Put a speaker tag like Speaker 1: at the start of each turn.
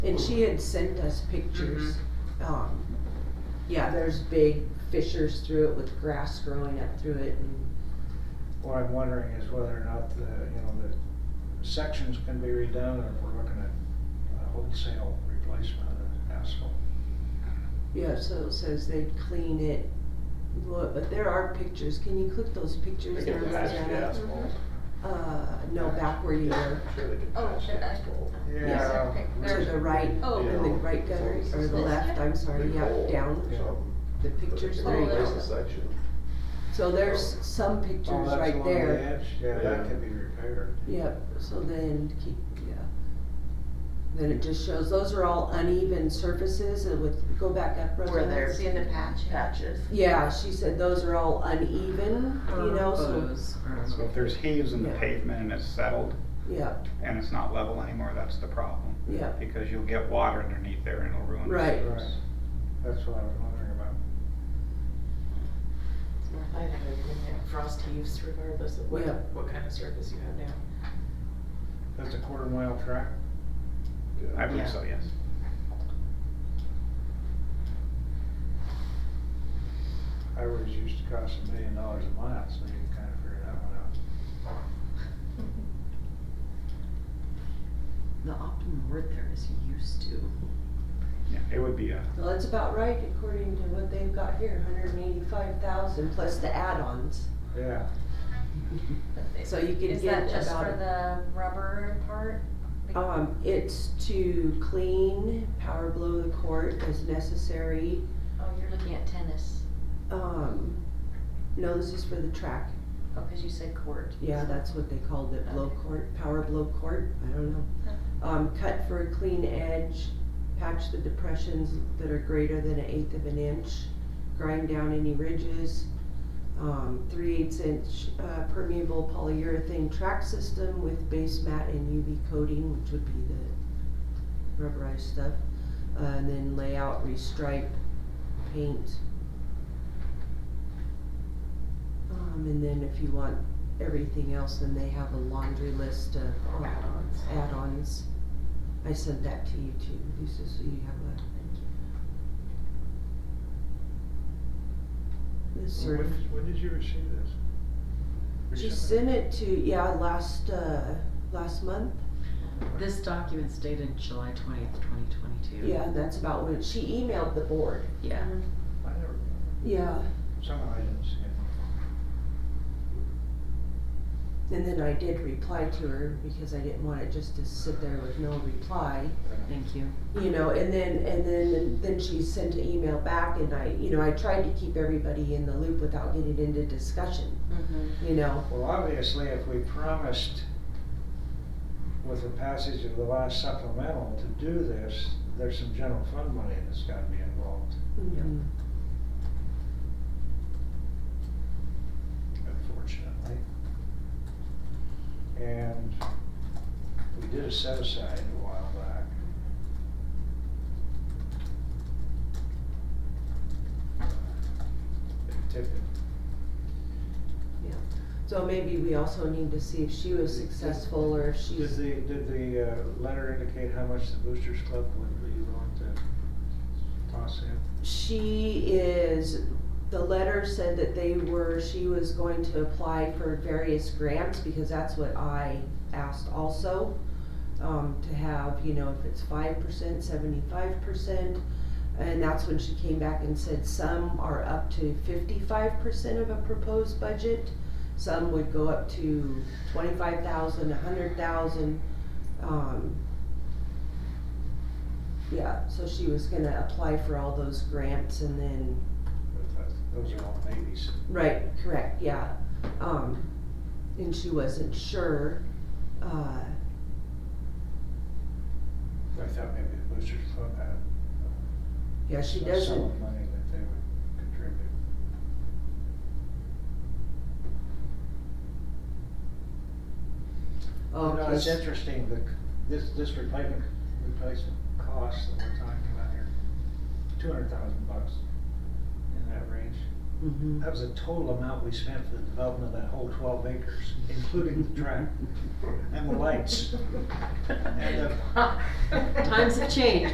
Speaker 1: And she had sent us pictures.
Speaker 2: Mm-hmm.
Speaker 1: Um, yeah, there's big fissures through it with grass growing up through it and,
Speaker 3: What I'm wondering is whether or not the, you know, the sections can be redone or if we're looking at a wholesale replacement of asphalt.
Speaker 1: yeah, so it says they'd clean it. Look, but there are pictures. Can you click those pictures?
Speaker 4: They can
Speaker 1: there,
Speaker 4: patch the
Speaker 1: Rosanna?
Speaker 4: asphalt.
Speaker 1: Uh, no, back where you were,
Speaker 4: Sure they can
Speaker 2: Oh,
Speaker 4: patch
Speaker 2: sure.
Speaker 4: the asphalt.
Speaker 3: Yeah.
Speaker 2: Okay,
Speaker 1: to
Speaker 2: there's-
Speaker 1: the right, in
Speaker 2: Oh.
Speaker 1: the right gutter, or the
Speaker 2: This
Speaker 1: left,
Speaker 2: guy?
Speaker 1: I'm sorry,
Speaker 4: Big
Speaker 1: yeah,
Speaker 4: hole
Speaker 1: down.
Speaker 4: or something,
Speaker 1: The
Speaker 4: but they
Speaker 1: pictures,
Speaker 4: can
Speaker 1: there you
Speaker 4: replace
Speaker 1: go.
Speaker 4: the section.
Speaker 1: So there's some
Speaker 3: Oh,
Speaker 1: pictures
Speaker 3: that's
Speaker 1: right
Speaker 3: along the
Speaker 1: there.
Speaker 3: edge? Yeah, that
Speaker 4: Yeah.
Speaker 3: can be repaired.
Speaker 1: Yep, so then keep, yeah. Then it just shows, those are all uneven surfaces and with, go back up.
Speaker 5: Where
Speaker 1: Rosanna.
Speaker 5: there's
Speaker 2: Seeing the patch.
Speaker 5: patches.
Speaker 1: Yeah, she said those are all uneven, you know,
Speaker 5: Uh-huh.
Speaker 1: so,
Speaker 5: um,
Speaker 6: So if there's heaves in the
Speaker 1: Yeah.
Speaker 6: pavement and it's settled
Speaker 1: yeah,
Speaker 6: and it's not level anymore, that's the problem.
Speaker 1: yeah,
Speaker 6: Because you'll get water underneath there and it'll ruin. the
Speaker 1: Right.
Speaker 6: surface.
Speaker 3: Right. That's what I was wondering about.
Speaker 7: I think you're gonna have frost heaves regardless of what,
Speaker 1: Yeah.
Speaker 7: what kind of surface you have now.
Speaker 3: That's a quarter mile track.
Speaker 6: I
Speaker 4: Yeah.
Speaker 6: believe
Speaker 5: Yeah.
Speaker 6: so, yes.
Speaker 3: I always used to cost a million dollars a mile, so you can kind of figure that one out.
Speaker 5: The optimal word there is used to.
Speaker 6: Yeah, it would be a,
Speaker 1: well, that's about right according to what they've got here, hundred and eighty-five thousand plus the add-ons.
Speaker 3: Yeah.
Speaker 1: So you can
Speaker 2: Is that
Speaker 1: get
Speaker 2: just
Speaker 1: about
Speaker 2: for
Speaker 1: a-
Speaker 2: the rubber part? Like-
Speaker 1: Um, it's to clean, power blow the court as necessary,
Speaker 2: Oh, you're looking at tennis,
Speaker 1: um, no, this is for the track.
Speaker 2: oh, cause you said court.
Speaker 1: Yeah, that's what they called it, blow court, power blow court, I don't know. Um, cut for a clean edge, patch the depressions that are greater than an eighth of an inch, grind down any ridges. Um, three eighths inch uh, permeable polyurethane track system with base mat and UV coating, which would be the rubberized stuff. Uh, and then lay out, restripe, paint. Um, and then if you want everything else, then they have a laundry list of uh,
Speaker 7: Add-ons.
Speaker 1: add-ons. I sent that to you too, Lisa, so you have a. This
Speaker 3: When,
Speaker 1: sort of,
Speaker 3: did- when did you receive this?
Speaker 1: she
Speaker 3: Recently?
Speaker 1: sent it to, yeah, last, uh, last month.
Speaker 5: This document's dated July twentieth, twenty twenty-two.
Speaker 1: Yeah, and that's about when, she emailed the board.
Speaker 5: Yeah.
Speaker 3: I never,
Speaker 1: Yeah.
Speaker 3: somehow I didn't see it.
Speaker 1: And then I did reply to her because I didn't want it just to sit there with no reply.
Speaker 5: Thank you.
Speaker 1: you know, and then, and then, then she sent an email back and I, you know, I tried to keep everybody in the loop without getting into discussion,
Speaker 5: Mm-hmm.
Speaker 1: you know.
Speaker 3: Well, obviously, if we promised with the passage of the last supplemental to do this, there's some general fund money that's gotta be involved, unfortunately. And we did a set aside a while back. Typically,
Speaker 1: So maybe we also need to see if she was successful or if
Speaker 3: Did
Speaker 1: she's,
Speaker 3: the, did the uh, letter indicate how much the Boosters Club would be willing to toss in?
Speaker 1: she is, the letter said that they were, she was going to apply for various grants because that's what I asked also. Um, to have, you know, if it's five percent, seventy-five percent, And that's when she came back and said some are up to fifty-five percent of a proposed budget. Some would go up to twenty-five thousand, a hundred thousand, um. Yeah, so she was gonna apply for all those grants and then,
Speaker 3: Those are all maybes.
Speaker 1: right, correct, yeah, um, and she wasn't sure, uh,
Speaker 3: I thought maybe the Boosters Club had.
Speaker 1: yeah, she
Speaker 3: some-
Speaker 1: doesn't.
Speaker 3: Some money that they would contribute. You know,
Speaker 1: Okay,
Speaker 3: it's
Speaker 1: she-
Speaker 3: interesting, the, c- this, this replacement, replacement cost that we're talking about here, two hundred thousand bucks in that range.
Speaker 1: Mhm.
Speaker 3: That was the total amount we spent for the development of that whole twelve acres, including the track and the lights. And the
Speaker 5: Times have changed.